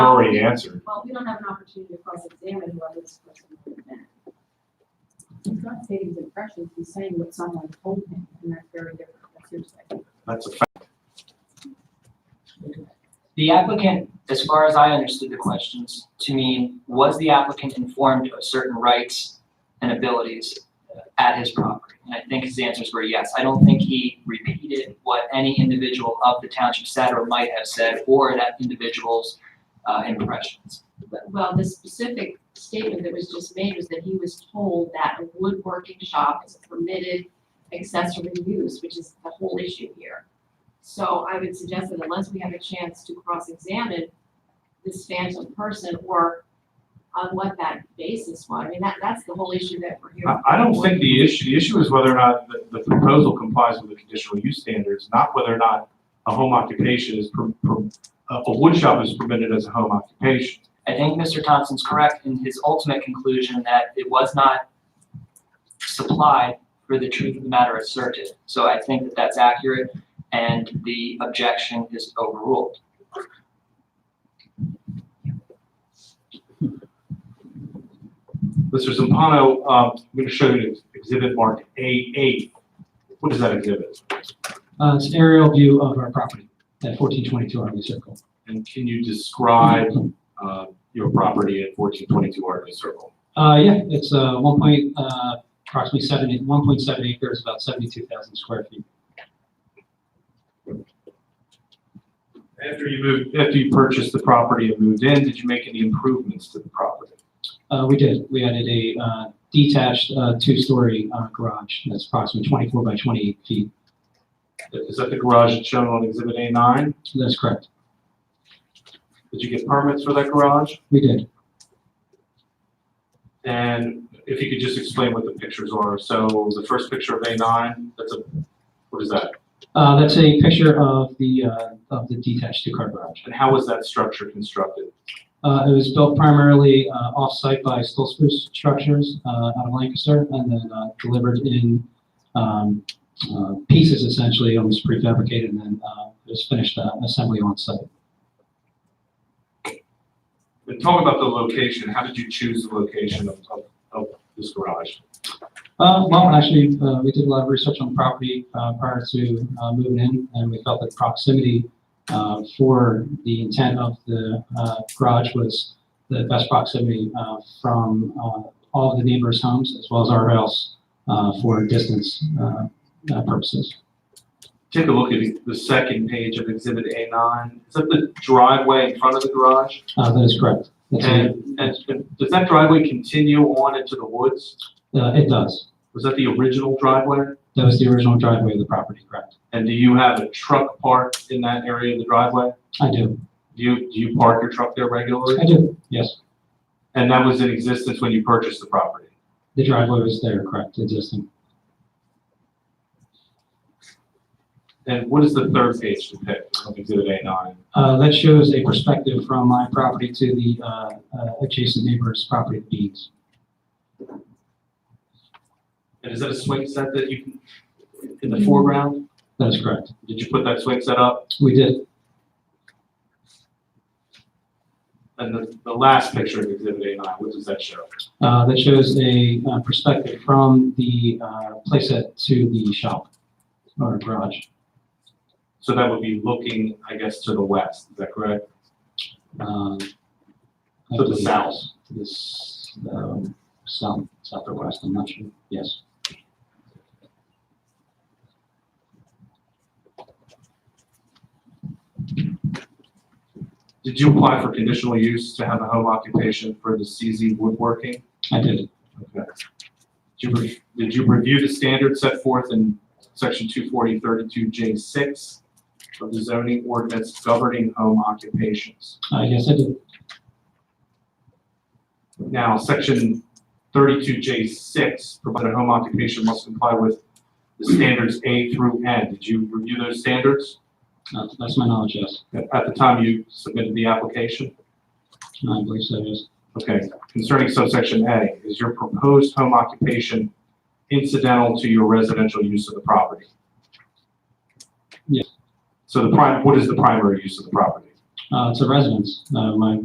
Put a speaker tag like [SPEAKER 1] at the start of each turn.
[SPEAKER 1] already answered.
[SPEAKER 2] Well, we don't have an opportunity to cross-examine whether this person would have been. He's not stating his impressions, he's saying what someone told him, and that's very different, that's hearsay.
[SPEAKER 1] That's a fact.
[SPEAKER 3] The applicant, as far as I understood the questions, to mean, was the applicant informed of certain rights and abilities uh, at his property? And I think his answers were yes. I don't think he repeated what any individual of the township said or might have said, or that individual's uh, impressions.
[SPEAKER 2] But- Well, the specific statement that was just made was that he was told that a woodworking shop is a permitted accessory use, which is the whole issue here. So I would suggest that unless we have a chance to cross-examine this phantom person or on what that basis was, I mean, that, that's the whole issue that we're here.
[SPEAKER 1] I, I don't think the issue, the issue is whether or not the, the proposal complies with the conditional use standards, not whether or not a home occupation is, per- per- uh, a a wood shop is permitted as a home occupation.
[SPEAKER 3] I think Mr. Thompson's correct in his ultimate conclusion that it was not supplied for the truth of the matter asserted. So I think that that's accurate, and the objection is overruled.
[SPEAKER 1] Mr. Zampano, um, I'm going to show you exhibit marked A8. What is that exhibit?
[SPEAKER 4] Uh, it's an aerial view of our property at fourteen twenty-two Army Circle.
[SPEAKER 1] And can you describe, uh, your property at 1422 Arctic Circle?
[SPEAKER 4] Uh, yeah, it's, uh, one point, uh, approximately seventy, one point seven acres, about seventy-two thousand square feet.
[SPEAKER 1] After you moved, after you purchased the property and moved in, did you make any improvements to the property?
[SPEAKER 4] Uh, we did, we added a, uh, detached, uh, two-story, uh, garage that's approximately twenty-four by twenty-eight feet.
[SPEAKER 1] Is that the garage that's shown on exhibit A9?
[SPEAKER 4] That's correct.
[SPEAKER 1] Did you get permits for that garage?
[SPEAKER 4] We did.
[SPEAKER 1] And if you could just explain what the pictures are. So the first picture of A9, that's a, what is that?
[SPEAKER 4] Uh, that's a picture of the, uh, of the detached two-car garage.
[SPEAKER 1] And how was that structure constructed?
[SPEAKER 4] Uh, it was built primarily, uh, off-site by Still Spruce Structures, uh, out of Lancaster, and then, uh, delivered in, um, uh, pieces essentially, almost prefabricated, and then, uh, it was finished, uh, assembly on-site.
[SPEAKER 1] And talk about the location. How did you choose the location of, of, of this garage?
[SPEAKER 4] Uh, well, actually, uh, we did a lot of research on the property, uh, prior to, uh, moving in, and we felt that proximity, uh, for the intent of the, uh, garage was the best proximity, uh, from, uh, all of the neighbors' homes, as well as our house, uh, for distance, uh, uh, purposes.
[SPEAKER 1] Take a look at the second page of exhibit A9. Is that the driveway in front of the garage?
[SPEAKER 4] Uh, that is correct. That's it.
[SPEAKER 1] And, and and does that driveway continue on into the woods?
[SPEAKER 4] Uh, it does.
[SPEAKER 1] Was that the original driveway?
[SPEAKER 4] That was the original driveway of the property, correct?
[SPEAKER 1] And do you have a truck parked in that area of the driveway?
[SPEAKER 4] I do.
[SPEAKER 1] Do you, do you park your truck there regularly?
[SPEAKER 4] I do, yes.
[SPEAKER 1] And that was in existence when you purchased the property?
[SPEAKER 4] The driveway was there, correct, existing.
[SPEAKER 1] And what does the third page depict of exhibit A nine?
[SPEAKER 4] Uh, that shows a perspective from my property to the, uh, uh, adjacent neighbor's property of Dean's.
[SPEAKER 1] And is that a swing set that you, can in the foreground?
[SPEAKER 4] That is correct.
[SPEAKER 1] Did you put that swing set up?
[SPEAKER 4] We did,
[SPEAKER 1] And the, the last picture of exhibit A nine, what does that show?
[SPEAKER 4] uh, that shows a, uh, perspective from the, uh, playset to the shop or garage.
[SPEAKER 1] So that would be looking, I guess, to the west, is that correct?
[SPEAKER 4] um, I
[SPEAKER 1] To the
[SPEAKER 4] believe
[SPEAKER 1] south.
[SPEAKER 4] it's- This, um, south, south or west, I'm not sure, yes.
[SPEAKER 1] Did you apply for conditional use to have a home occupation for the CZ woodworking?
[SPEAKER 4] I did.
[SPEAKER 1] Okay. Did you, re- did you review the standards set forth in section two forty thirty-two J six of the zoning ordinance governing home occupations?
[SPEAKER 4] Uh, yes, I did.
[SPEAKER 1] Now, section thirty-two J six, provided home occupation must comply with the standards A through N. Did you review those standards
[SPEAKER 4] Uh, that's my knowledge, yes.
[SPEAKER 1] at at the time you submitted the application?
[SPEAKER 4] I believe so, yes.
[SPEAKER 1] Okay, concerning subsection A, is your proposed home occupation incidental to your residential use of the property?
[SPEAKER 4] Yes.
[SPEAKER 1] So the prime, what is the primary use of the property?
[SPEAKER 4] Uh, it's a residence. Uh, my